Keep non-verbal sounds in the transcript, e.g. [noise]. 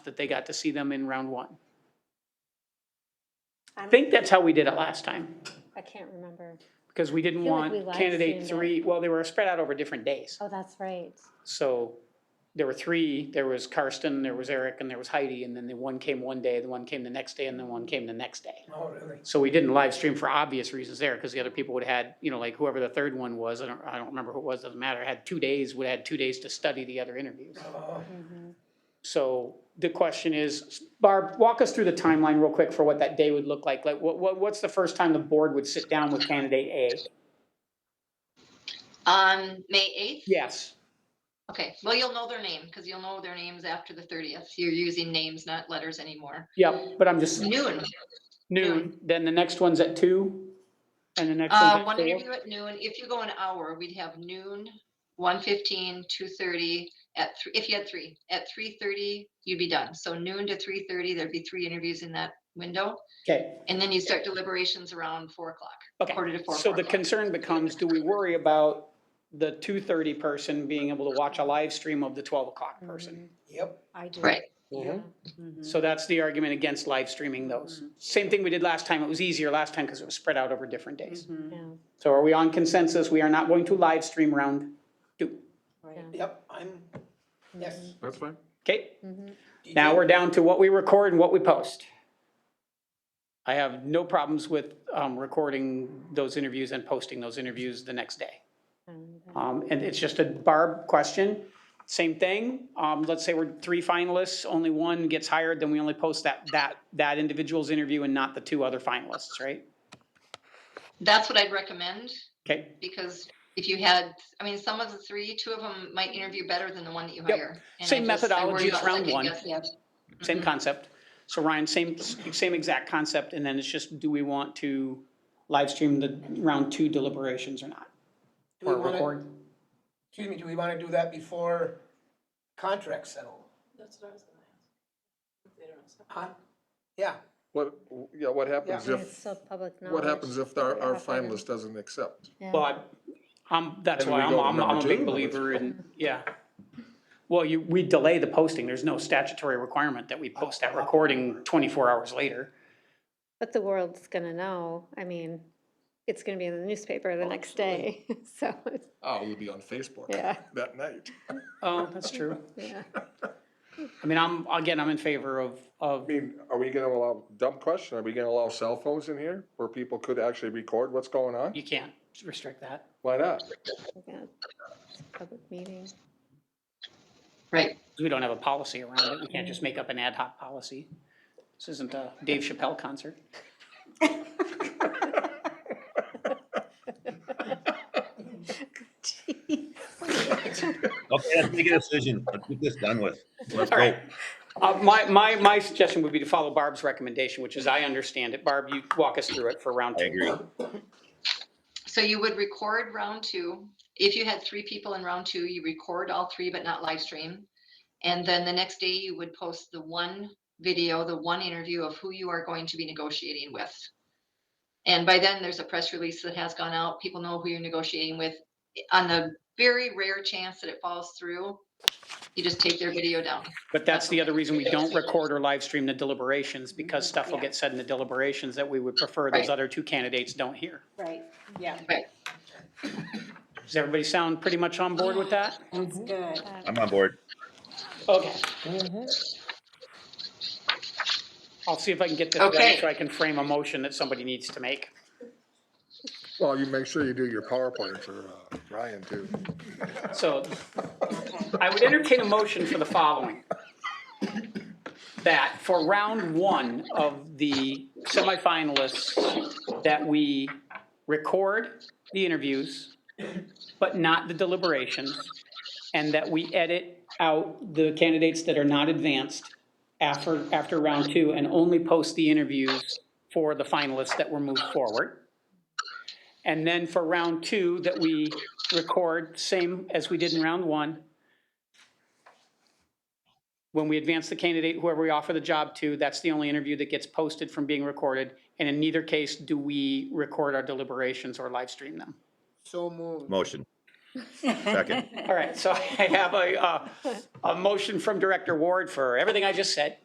that they got to see them in round one. I I'm- think that's how we did it last time, I can't remember. because we didn't feel like want we live candidate streamed it. three, well, they were spread out over different days. Oh, that's right. So there were three, there was Karsten, there was Eric, and there was Heidi, and then the one came one day, the one came the next day, and the Mm-hmm. one came the next day. Oh, really? So we didn't live stream for obvious reasons there, because the other people would had, you know, like whoever the third one was, I don't, I don't remember who it was, doesn't matter, had two days, would had two days to study the other interviews. Oh, Mhm. So the question is, Barb, walk us through the timeline real quick for what that day would look like. Like, what, what, what's the first time the board would sit down with candidate A? On Um, May 8th? Yes, Okay, well, you'll know their name because you'll know their names after the 30th. You're using names, not letters anymore. yep, but I'm just Noon, noon, then the next one's at two, and the next uh, one's at one four. interview at noon. If you go an hour, we'd have noon, 1:15, 2:30, at, thr- if you had three, at 3:30, you'd be done. So noon to 3:30, there'd be three interviews in that window. Okay, And then you start deliberations around 4 o'clock, okay. quarter to 4. So four the o'clock. concern becomes, do we worry about the two thirty person being able to watch a live stream of the twelve o'clock Mm-hmm. person? yep. I do. Right. Yeah. Mm-hmm. Mm-hmm. Mhm. So that's the argument against live streaming Mm-hmm. those. Same thing we did last time. It was easier last time because it was spread out over different days. Mm-hmm. Yeah, So are we on consensus? We are not going to live stream round two. right. Yep, I'm, yes. That's fine. Okay, Mhm. DJ. now we're down to what we record and what we post. I have no problems with um, recording those interviews and posting those interviews the next day. Um, that- Um, And it's just a Barb question, same thing. Um, Let's say we're three finalists, only one gets hired, then we only post that, that, that individual's interview and not the two other finalists, right? That's what I'd recommend. Okay, because if you had, I mean, some of the three, two of them might interview better than the one that you Yep. hire. And I Same just- I worry methodology about as round second one. guessing it. same Mhm. concept. So Ryan, same, same exact concept, and then it's just, do we want to live stream the round two deliberations or not? Do we Or wanna- record? Excuse me, do we want to do that before contracts settle? That's what I was gonna ask. If they don't accept. Huh? Yeah, What, yeah, what happens Yeah. And It's if, still public knowledge. what happens if our, our Up and- finalist doesn't accept? Yeah. Well, I- I'm, that's And why we I'm, go to I'm, I'm a number big two. believer in, yeah. Well, you, we delay the posting. There's no statutory requirement that we post that recording twenty-four hours later. But the world's gonna know, I mean, it's gonna be in the newspaper the next day, [laughs] so, Oh, we'll be on Facebook yeah, that night. Oh, that's true. yeah. I mean, I'm, again, I'm in favor of, I of, mean, are we gonna allow, dumb question, are we gonna allow cell phones in here where people could actually record what's going on? you can't restrict that. Why not? yeah. It's a Public meeting. [laughs] Right. We don't have a policy around it. We can't just make up an ad hoc policy. This isn't a Dave Chappelle concert. Okay, let's make a decision. Let's get this [laughs] done with. Let's All go. right. Uh, my, my, my suggestion would be to follow Barb's recommendation, which is I understand it. Barb, you walk us through it for round two. I agree. So you would record round two. If you had three people in round two, you record all three, but not live stream. And then the next day you would post the one video, the one interview of who you are going to be negotiating with. And by then, there's a press release that has gone out. People know who you're negotiating with. On the very rare chance that it falls through, you just take their video down. But that's the other reason we don't record or live stream the deliberations, because stuff will get said in the deliberations that we would prefer those Right. other two candidates don't hear. Right, yeah, Does everybody sound pretty much on board with that? that's good. I'm on board. Okay. I'll see if I can get this right, Okay. so I can frame a motion that somebody needs to make. Well, you make sure you do your PowerPoint for uh, Ryan too. So I would entertain a motion for the following. That for round one of the semifinalists, that we record the interviews, but not the deliberations, and that we edit out the candidates that are not advanced after, after round two, and only post the interviews for the finalists that were moved forward. And then for round two, that we record, same as we did in round one. When we advance the candidate, whoever we offer the job to, that's the only interview that gets posted from being recorded. And in neither case do we record our deliberations or live stream them. so [laughs] moved. Motion. Second. All right, so I have a, uh, a motion from Director Ward for everything I just said.